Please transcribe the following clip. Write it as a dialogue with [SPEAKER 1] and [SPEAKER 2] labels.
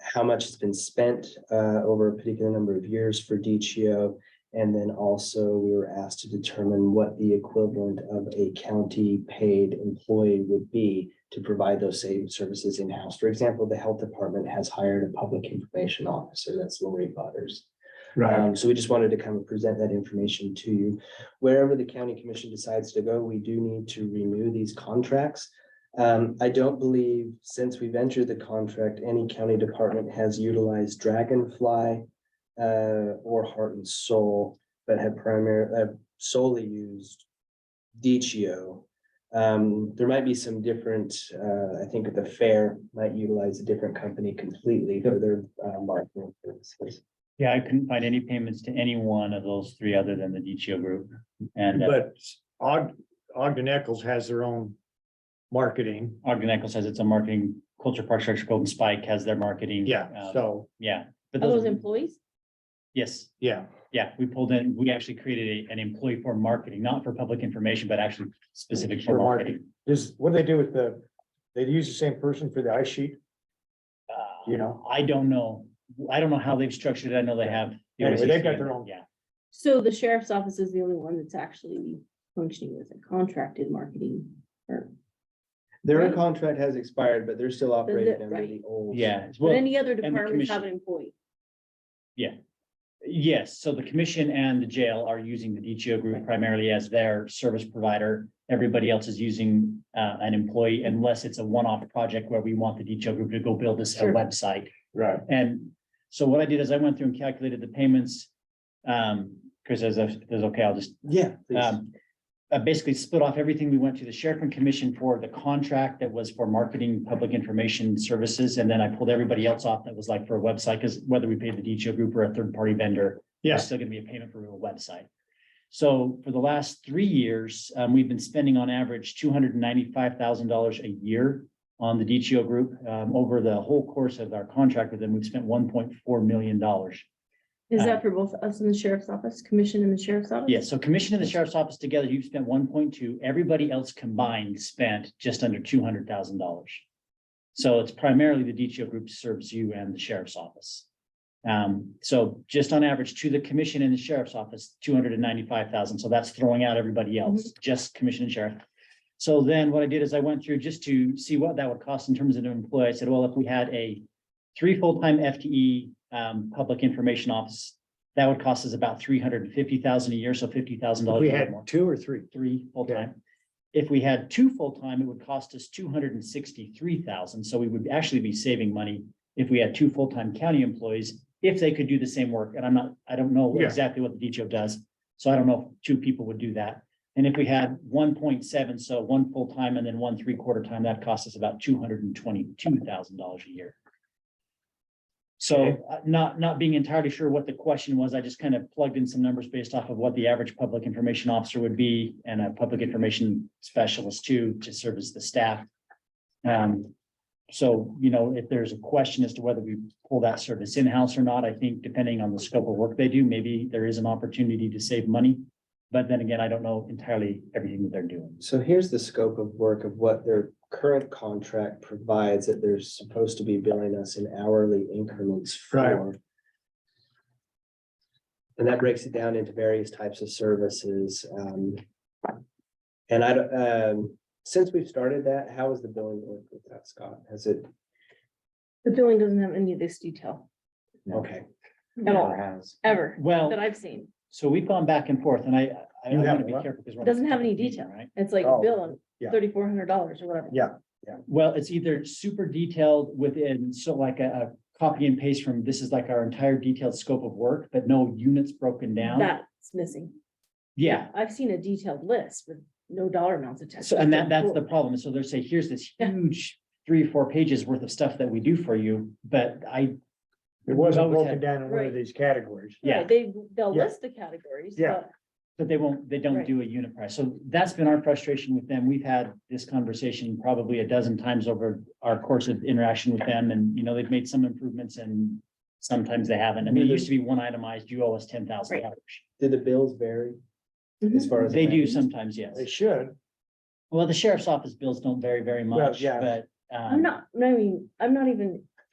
[SPEAKER 1] how much has been spent uh, over a particular number of years for DCO. And then also we were asked to determine what the equivalent of a county paid employee would be to provide those same services in-house. For example, the health department has hired a public information officer, that's Lori Butters. Um, so we just wanted to kind of present that information to you. Wherever the county commission decides to go, we do need to renew these contracts. Um, I don't believe since we've entered the contract, any county department has utilized Dragonfly uh, or Heart and Soul, but have primarily solely used DCO. Um, there might be some different, uh, I think the fair might utilize a different company completely for their uh, marketing purposes.
[SPEAKER 2] Yeah, I couldn't find any payments to any one of those three other than the DCO group. And uh,
[SPEAKER 3] But Og, Ogden Eccles has their own marketing.
[SPEAKER 2] Ogden Echo says it's a marketing, Culture Park Structure Golden Spike has their marketing.
[SPEAKER 3] Yeah,
[SPEAKER 2] um,
[SPEAKER 3] so,
[SPEAKER 2] Yeah. But
[SPEAKER 4] Are those
[SPEAKER 2] those,
[SPEAKER 4] employees?
[SPEAKER 2] yes,
[SPEAKER 3] yeah,
[SPEAKER 2] yeah, we pulled in, we actually created a- an employee for marketing, not for public information, but actually specific for
[SPEAKER 3] For
[SPEAKER 2] marketing.
[SPEAKER 3] is, what do they do with the, they use the same person for the ice sheet,
[SPEAKER 2] Uh,
[SPEAKER 3] you know?
[SPEAKER 2] I don't know. I don't know how they've structured it. I know they have. the
[SPEAKER 3] Anyway, they've got
[SPEAKER 2] OCC,
[SPEAKER 3] their own-
[SPEAKER 2] Yeah,
[SPEAKER 4] So the sheriff's office is the only one that's actually functioning as a contracted marketing firm.
[SPEAKER 1] Their
[SPEAKER 4] Right.
[SPEAKER 1] contract has expired, but they're still operating under
[SPEAKER 4] right.
[SPEAKER 1] the old.
[SPEAKER 2] yeah. it's-
[SPEAKER 4] But
[SPEAKER 2] well-
[SPEAKER 4] any other
[SPEAKER 2] the
[SPEAKER 4] departments have
[SPEAKER 2] commission.
[SPEAKER 4] an employee.
[SPEAKER 2] Yes, so the commission and the jail are using the DTO group primarily as their service provider. Everybody else is using uh, an employee unless it's a one-off project where we want the DTO group to go build us a
[SPEAKER 4] Sure.
[SPEAKER 2] website.
[SPEAKER 3] Right.
[SPEAKER 2] And so what I did is I went through and calculated the payments. Um, Chris, is that is okay? I'll just
[SPEAKER 1] Yeah. please.
[SPEAKER 2] um, I basically split off everything. We went to the sheriff and commission for the contract that was for marketing, public information services. And then I pulled everybody else off that was like for a website, because whether we paid the DTO group or a third-party vendor, there's
[SPEAKER 3] Yes,
[SPEAKER 2] still gonna be a payment for a website. So for the last three years, um, we've been spending on average two hundred and ninety-five thousand dollars a year on the DTO group. Um, over the whole course of our contract with them, we've spent one point four million dollars.
[SPEAKER 4] Is
[SPEAKER 2] Uh,
[SPEAKER 4] that for both us and the sheriff's office, commission and the sheriff's office?
[SPEAKER 2] Yeah, so commission and the sheriff's office together, you've spent one point two, everybody else combined spent just under two hundred thousand dollars. So it's primarily the DTO group serves you and the sheriff's office. Um, so just on average to the commission and the sheriff's office, two hundred and ninety-five thousand, so that's throwing out everybody else, just commission and sheriff. So then what I did is I went through just to see what that would cost in terms of an employee. I said, well, if we had a three full-time FTE, um, public information office, that would cost us about three hundred and fifty thousand a year, so fifty
[SPEAKER 3] if
[SPEAKER 2] thousand dollars.
[SPEAKER 3] we had two or three.
[SPEAKER 2] Three full-time. If we had two full-time, it would cost us two hundred and sixty-three thousand, so we would actually be saving money if we had two full-time county employees, if they could do the same work, and I'm not, I don't know
[SPEAKER 3] Yeah.
[SPEAKER 2] exactly what the DTO does, so I don't know if two people would do that. And if we had one point seven, so one full-time and then one three-quarter time, that costs us about two hundred and twenty-two thousand dollars a year.
[SPEAKER 3] Okay.
[SPEAKER 2] So uh, not, not being entirely sure what the question was, I just kind of plugged in some numbers based off of what the average public information officer would be and a public information specialist too, to serve as the staff. Um, so, you know, if there's a question as to whether we pull that service in-house or not, I think depending on the scope of work they do, maybe there is an opportunity to save money. But then again, I don't know entirely everything that they're doing.
[SPEAKER 1] So here's the scope of work of what their current contract provides that they're supposed to be billing us in hourly increments
[SPEAKER 3] Right.
[SPEAKER 1] for. And that breaks it down into various types of services. um, And I, don't- um, since we've started that, how has the billing worked with that, Scott? Has it,
[SPEAKER 4] The billing doesn't have any of this detail
[SPEAKER 1] okay,
[SPEAKER 4] at all, ever,
[SPEAKER 2] Well,
[SPEAKER 4] that I've seen.
[SPEAKER 2] so we've gone back and forth and I, I I
[SPEAKER 3] You have
[SPEAKER 2] want to be
[SPEAKER 3] what?
[SPEAKER 2] careful because. we're on a
[SPEAKER 4] Doesn't have any
[SPEAKER 2] public meeting,
[SPEAKER 4] detail.
[SPEAKER 2] Right?
[SPEAKER 4] It's like
[SPEAKER 3] Oh,
[SPEAKER 4] bill
[SPEAKER 3] yeah.
[SPEAKER 4] thirty-four hundred dollars or whatever.
[SPEAKER 3] Yeah.
[SPEAKER 2] Well, it's either super detailed within, so like a, a copy and paste from, this is like our entire detailed scope of work, but no units broken down.
[SPEAKER 4] That's missing.
[SPEAKER 2] Yeah,
[SPEAKER 4] I've seen a detailed list with no dollar amounts attached.
[SPEAKER 2] so, and that, that's the problem. So they're saying, here's this huge three, four pages worth of stuff that we do for you, but I,
[SPEAKER 3] It wasn't
[SPEAKER 2] Always
[SPEAKER 3] broken
[SPEAKER 2] had-
[SPEAKER 3] down in one
[SPEAKER 4] Right.
[SPEAKER 3] of these categories.
[SPEAKER 2] yeah.
[SPEAKER 4] Right, They, they'll
[SPEAKER 3] Yeah.
[SPEAKER 4] list the categories,
[SPEAKER 3] Yeah.
[SPEAKER 4] but
[SPEAKER 2] But they won't, they don't
[SPEAKER 4] Right.
[SPEAKER 2] do a unit price. So that's been our frustration with them. We've had this conversation probably a dozen times over our course of interaction with them and, you know, they've made some improvements and sometimes they haven't. I mean, it used to be one itemized, you owe us ten thousand dollars.
[SPEAKER 1] do the bills vary as
[SPEAKER 4] Mhm.
[SPEAKER 1] far as?
[SPEAKER 2] They do sometimes, yes.
[SPEAKER 3] They should,
[SPEAKER 2] Well, the sheriff's office bills don't vary very
[SPEAKER 3] Well,
[SPEAKER 2] much,
[SPEAKER 3] yeah.
[SPEAKER 2] but. um,
[SPEAKER 4] I'm not, I mean, I'm not even